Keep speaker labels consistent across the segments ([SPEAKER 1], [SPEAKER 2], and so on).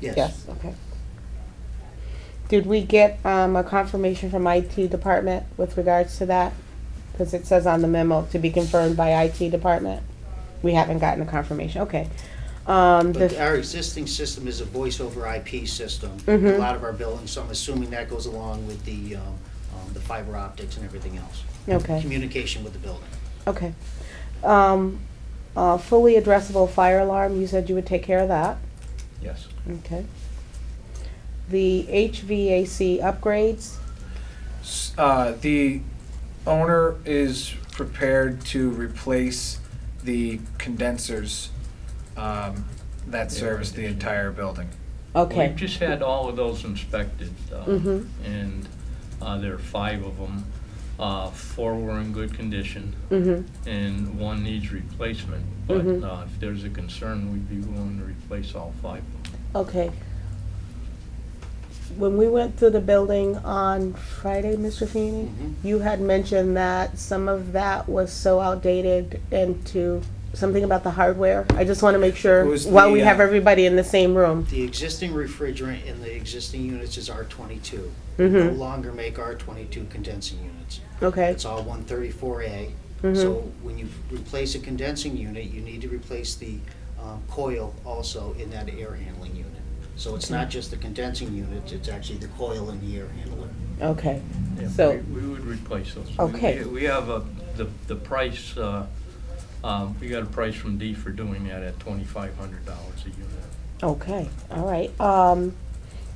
[SPEAKER 1] Yes.
[SPEAKER 2] okay. Did we get, um, a confirmation from IT department with regards to that? Cause it says on the memo, to be confirmed by IT department. We haven't gotten a confirmation, okay. Um,
[SPEAKER 1] But
[SPEAKER 2] the,
[SPEAKER 1] our existing system is a voice over IP system. A
[SPEAKER 2] Mhm.
[SPEAKER 1] lot of our buildings, so I'm assuming that goes along with the, um, um, the fiber optics and everything else.
[SPEAKER 2] okay.
[SPEAKER 1] Communication with the building.
[SPEAKER 2] Okay. Um, uh, fully addressable fire alarm, you said you would take care of that,
[SPEAKER 3] Yes.
[SPEAKER 2] okay. The HVAC upgrades,
[SPEAKER 3] S- Uh, the owner is prepared to replace the condensers um, that service the entire building.
[SPEAKER 2] okay.
[SPEAKER 4] We've just had all of those inspected, uh,
[SPEAKER 2] Mhm.
[SPEAKER 4] and uh, there are five of them. Uh, Four were in good condition,
[SPEAKER 2] Mm-hmm,
[SPEAKER 4] and one needs replacement. But
[SPEAKER 2] Mhm.
[SPEAKER 4] uh, if there's a concern, we'd be willing to replace all five of them.
[SPEAKER 2] okay. When we went through the building on Friday, Mr. Feeney,
[SPEAKER 1] Mhm.
[SPEAKER 3] Mm-hmm.
[SPEAKER 2] you had mentioned that some of that was so outdated and to, something about the hardware. I just wanna make
[SPEAKER 3] It
[SPEAKER 2] sure,
[SPEAKER 3] was
[SPEAKER 2] while
[SPEAKER 3] the,
[SPEAKER 2] we
[SPEAKER 3] uh,
[SPEAKER 2] have everybody in the same room.
[SPEAKER 1] The existing refrigerant in the existing units is R twenty-two. No
[SPEAKER 2] Mm-hmm,
[SPEAKER 1] longer make R twenty-two condensing units.
[SPEAKER 2] okay,
[SPEAKER 1] It's all one thirty-four A.
[SPEAKER 2] mm-hmm,
[SPEAKER 1] So when you replace a condensing unit, you need to replace the um, coil also in that air handling unit. So it's not just the condensing unit, it's actually the coil and the air handler.
[SPEAKER 2] okay.
[SPEAKER 4] Yeah,
[SPEAKER 2] So-
[SPEAKER 4] we- We would replace those. We-
[SPEAKER 2] Okay.
[SPEAKER 4] We have a, the, the price, uh, um, we got a price from D for doing that at twenty-five hundred dollars a unit.
[SPEAKER 2] Okay, all right. Um,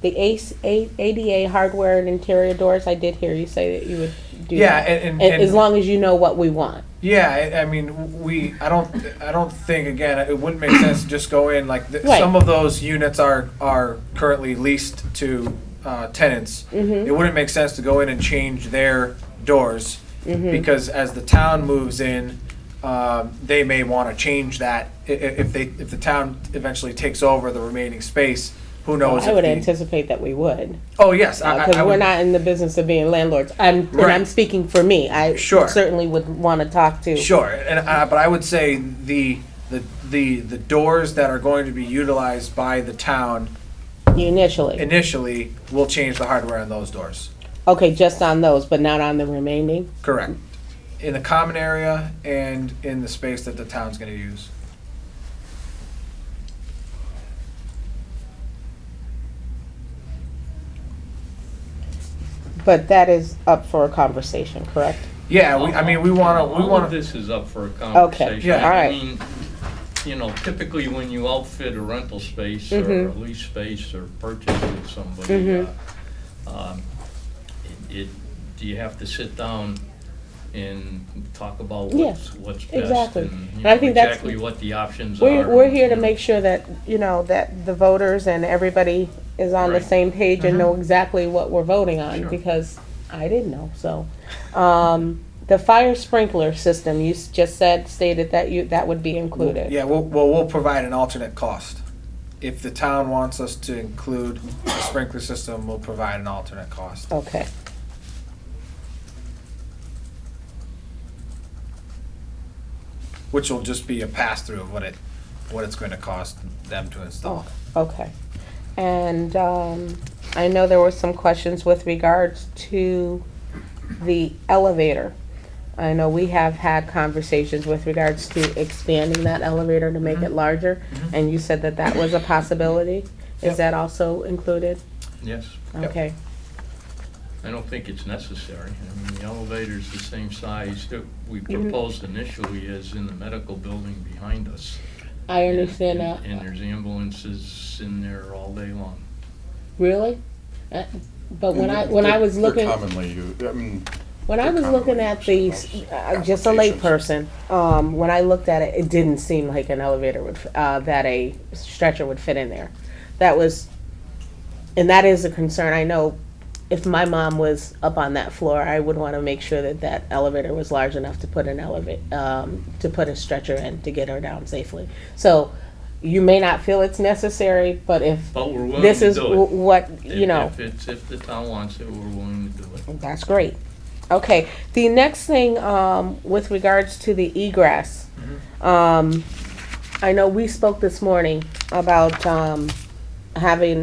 [SPEAKER 2] the ACE, A- ADA hardware and interior doors, I did hear you say that you would do
[SPEAKER 3] Yeah,
[SPEAKER 2] that.
[SPEAKER 3] and- and-
[SPEAKER 2] A- As
[SPEAKER 3] and-
[SPEAKER 2] long as you know what we want.
[SPEAKER 3] Yeah, I, I mean, we. I don't. I don't think again. It wouldn't make sense to just go in like th-
[SPEAKER 2] Right.
[SPEAKER 3] some of those units are are currently leased to uh, tenants.
[SPEAKER 2] Mhm.
[SPEAKER 3] It wouldn't make sense to go in and change their doors
[SPEAKER 2] Mhm.
[SPEAKER 3] because as the town moves in, um, they may want to change that I- i- if they if the town eventually takes over the remaining space. Who knows?
[SPEAKER 2] I
[SPEAKER 3] if
[SPEAKER 2] would
[SPEAKER 3] the-
[SPEAKER 2] anticipate that we would,
[SPEAKER 3] Oh yes, I- I,
[SPEAKER 2] Uh, because
[SPEAKER 3] I
[SPEAKER 2] we're
[SPEAKER 3] would-
[SPEAKER 2] not in the business of being landlords. I'm, and I'm
[SPEAKER 3] Right.
[SPEAKER 2] speaking for me. I
[SPEAKER 3] Sure.
[SPEAKER 2] certainly would want to talk to.
[SPEAKER 3] Sure, and uh, but I would say the the the the doors that are going to be utilized by the town
[SPEAKER 2] Initially.
[SPEAKER 3] initially will change the hardware on those doors.
[SPEAKER 2] Okay, just on those, but not on the remaining?
[SPEAKER 3] Correct. In the common area and in the space that the town's going to use.
[SPEAKER 2] But that is up for a conversation, correct?
[SPEAKER 3] Yeah, we, I mean, we want to we
[SPEAKER 4] All of
[SPEAKER 3] want to.
[SPEAKER 4] this is up for a conversation.
[SPEAKER 3] Yeah.
[SPEAKER 2] alright.
[SPEAKER 4] I mean, you know, typically when you outfit a rental space or a
[SPEAKER 2] Mhm.
[SPEAKER 4] lease space or purchase with somebody, uh,
[SPEAKER 2] Mhm.
[SPEAKER 4] um, it, it- do you have to sit down and talk about
[SPEAKER 2] Yeah,
[SPEAKER 4] what's, what's best?
[SPEAKER 2] exactly.
[SPEAKER 4] and you
[SPEAKER 2] And I
[SPEAKER 4] know,
[SPEAKER 2] think that's-
[SPEAKER 4] Exactly what the options are.
[SPEAKER 2] We're, we're here to
[SPEAKER 4] and,
[SPEAKER 2] make sure that, you know, that the voters and everybody is on the
[SPEAKER 4] Right.
[SPEAKER 2] same page and know exactly what we're voting on,
[SPEAKER 4] Sure.
[SPEAKER 2] because I didn't know, so. Um, the fire sprinkler system, you s- just said, stated that you, that would be included.
[SPEAKER 3] Yeah, we'll, well, we'll provide an alternate cost. If the town wants us to include the sprinkler system, we'll provide an alternate cost.
[SPEAKER 2] Okay.
[SPEAKER 3] which will just be a pass through of what it, what it's going to cost them to install.
[SPEAKER 2] Okay. And um, I know there were some questions with regards to the elevator. I know we have had conversations with regards to expanding that elevator to
[SPEAKER 3] Mm-hmm.
[SPEAKER 2] make it larger, and you said that that was a possibility. Is
[SPEAKER 3] Yep.
[SPEAKER 2] that also included?
[SPEAKER 4] Yes,
[SPEAKER 3] Yep.
[SPEAKER 2] Okay,
[SPEAKER 4] I don't think it's necessary. I mean, the elevator's the same size that we
[SPEAKER 2] Mhm.
[SPEAKER 4] proposed initially as in the medical building behind us.
[SPEAKER 2] I understand that.
[SPEAKER 4] And there's ambulances in there all day long.
[SPEAKER 2] Really? Uh, But when
[SPEAKER 5] And
[SPEAKER 2] I,
[SPEAKER 5] they're-
[SPEAKER 2] when I
[SPEAKER 5] they're-
[SPEAKER 2] was
[SPEAKER 5] they're
[SPEAKER 2] looking.
[SPEAKER 5] Commonly used, I mean,
[SPEAKER 2] When I
[SPEAKER 5] They're
[SPEAKER 2] was looking
[SPEAKER 5] commonly
[SPEAKER 2] at
[SPEAKER 5] used
[SPEAKER 2] these, uh, just a layperson,
[SPEAKER 5] applications.
[SPEAKER 2] um, when I looked at it, it didn't seem like an elevator would, f- uh, that a stretcher would fit in there. That was, and that is a concern. I know if my mom was up on that floor, I would want to make sure that that elevator was large enough to put an elevator, um, to put a stretcher in to get her down safely. So you may not feel it's necessary, but if
[SPEAKER 4] But we're willing to do it.
[SPEAKER 2] this is w- what, you
[SPEAKER 4] If-
[SPEAKER 2] know.
[SPEAKER 4] If it's, if the town wants it, we're willing to do it.
[SPEAKER 2] That's great. Okay, the next thing, um, with regards to the egress, um, I know we spoke this morning about, um, having